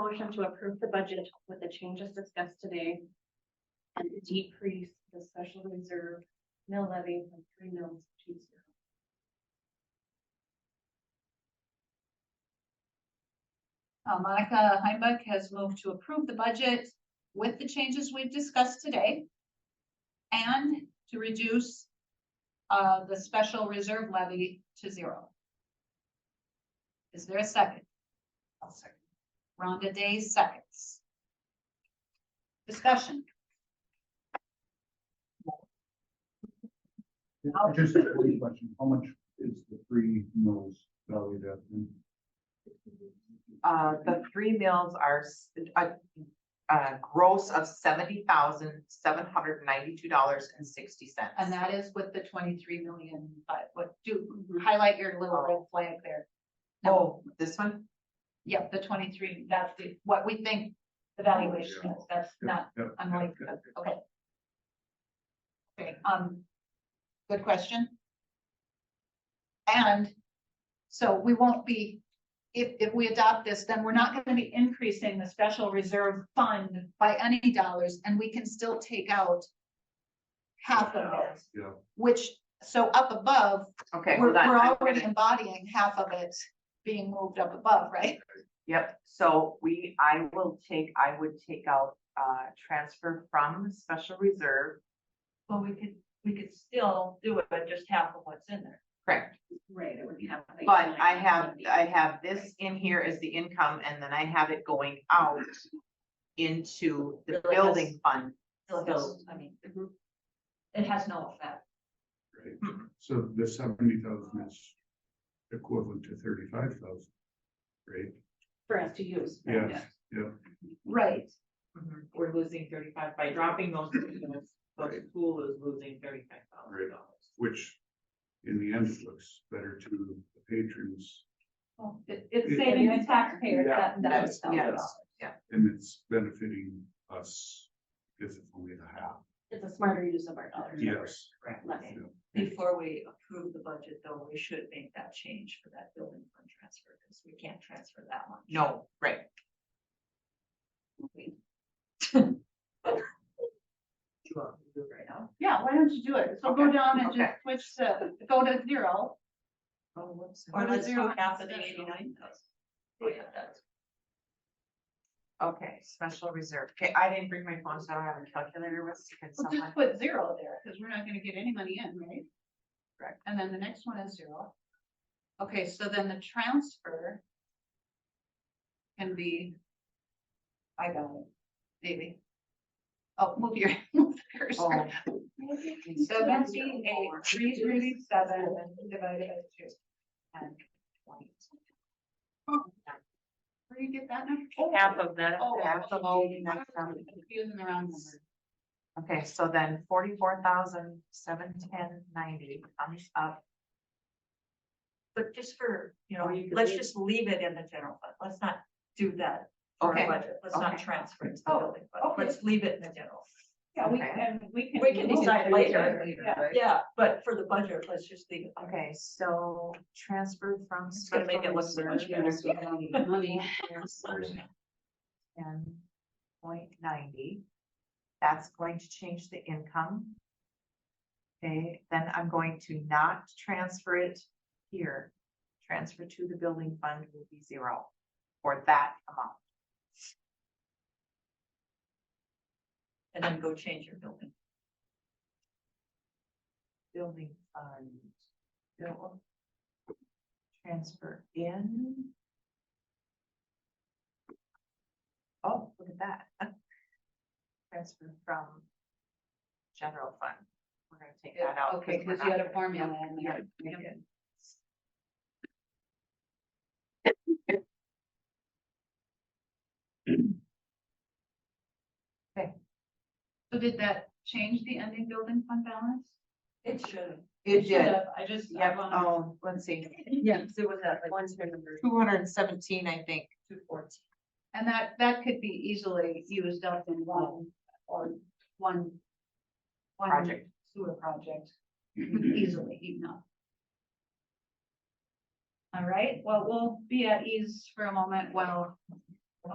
motion to approve the budget with the changes discussed today. And decrease the special reserve mill levy from three mills to zero. Uh, Monica Heimbach has moved to approve the budget with the changes we've discussed today. And to reduce uh, the special reserve levy to zero. Is there a second? I'll second. Rhonda Day seconds. Discussion, I'll- Just a quick question, how much is the three mills valued at? Uh, the three mills are s- a, a gross of seventy thousand, seven hundred ninety-two dollars and sixty cents. and that is with the twenty-three million, but what do, Mm-hmm. highlight your little red flag there. Oh, this one? Yep, the twenty-three, that's the, what we think the valuation is, that's not unlike, okay. Okay, um, good question. And so we won't be, if, if we adopt this, then we're not gonna be increasing the special reserve fund by any dollars, and we can still take out half of it, Yeah, which, so up above, Okay, we're, hold on. we're I'm already gonna- embodying half of it being moved up above, right? Yep, so we, I will take, I would take out, uh, transfer from special reserve. Well, we could, we could still do it, but just half of what's in there. Correct. Right, it would be half. But I have, I have this in here as the income and then I have it going out into the Really, that's- building fund. Still goes, I mean, it has no effect. right. So the seventy thousand is equivalent to thirty-five thousand, right? For us to use. Yeah. Right. Mhm. we're losing thirty-five, by dropping those two units, the school is losing thirty-five Right. thousand dollars. Which in the end looks better to the patrons It, it's It- saving the taxpayers Yeah, that, yes, that. yes. and it's benefiting us because it's only the half. It's a smarter use of our dollars. Yes. Correct. Less. yeah. Before we approve the budget, though, we should make that change for that building fund transfer, because we can't transfer that one. No, right. You want to do it right now? Yeah, why don't you do it? So go Okay, down and just okay. switch to, go to zero. Or Or let's zero do half of the special. eighty-nine thousand. Yeah, that's. Okay, special reserve. Okay, I didn't bring my phone, so I don't have a calculator with, me. can Well, someone? just put zero there, because we're not gonna get any money in, right? Correct. And then the next one is zero. Okay, so then the transfer can be, I got it, maybe. Oh, move your, move the cursor. Oh, Seventy-eight, three thirty-seven divided by two. And twenty. Where do you get that number? Half of that. Oh, half of okay. the next I'm number. Confusing the round number. Okay, so then forty-four thousand, seven ten ninety comes up. But just for, you know, Or you could let's leave- just leave it in the general fund. Let's not do that for Okay, our budget. Let's not okay. transfer it to the Oh, building fund. okay. Let's leave it in the general. Yeah, we Okay. can, we can. We can move decide it later. Yeah. Yeah, but for the budget, let's just leave it. Okay, so transfer from. It's gonna make it look so much better. Money. Ten point ninety. That's going to change the income. Okay, then I'm going to not transfer it here. Transfer to the building fund will be zero for that amount. And then go change your building. Building fund. bill. Transfer in. Oh, look at that. Transfer from general fund. We're gonna take that out. Okay, we're because you had not- a formula in Yeah, there. we did. So did that change the ending building fund balance? It should. It did. Should've, I just. I Yep, wanna- oh, let's see, Yeah, so was that like one hundred number two hundred and seventeen, I think. two fourteen? And that, that could be easily used up in one, or one. one Project. Sewer project, easily enough. All right, well, we'll be at ease for a moment while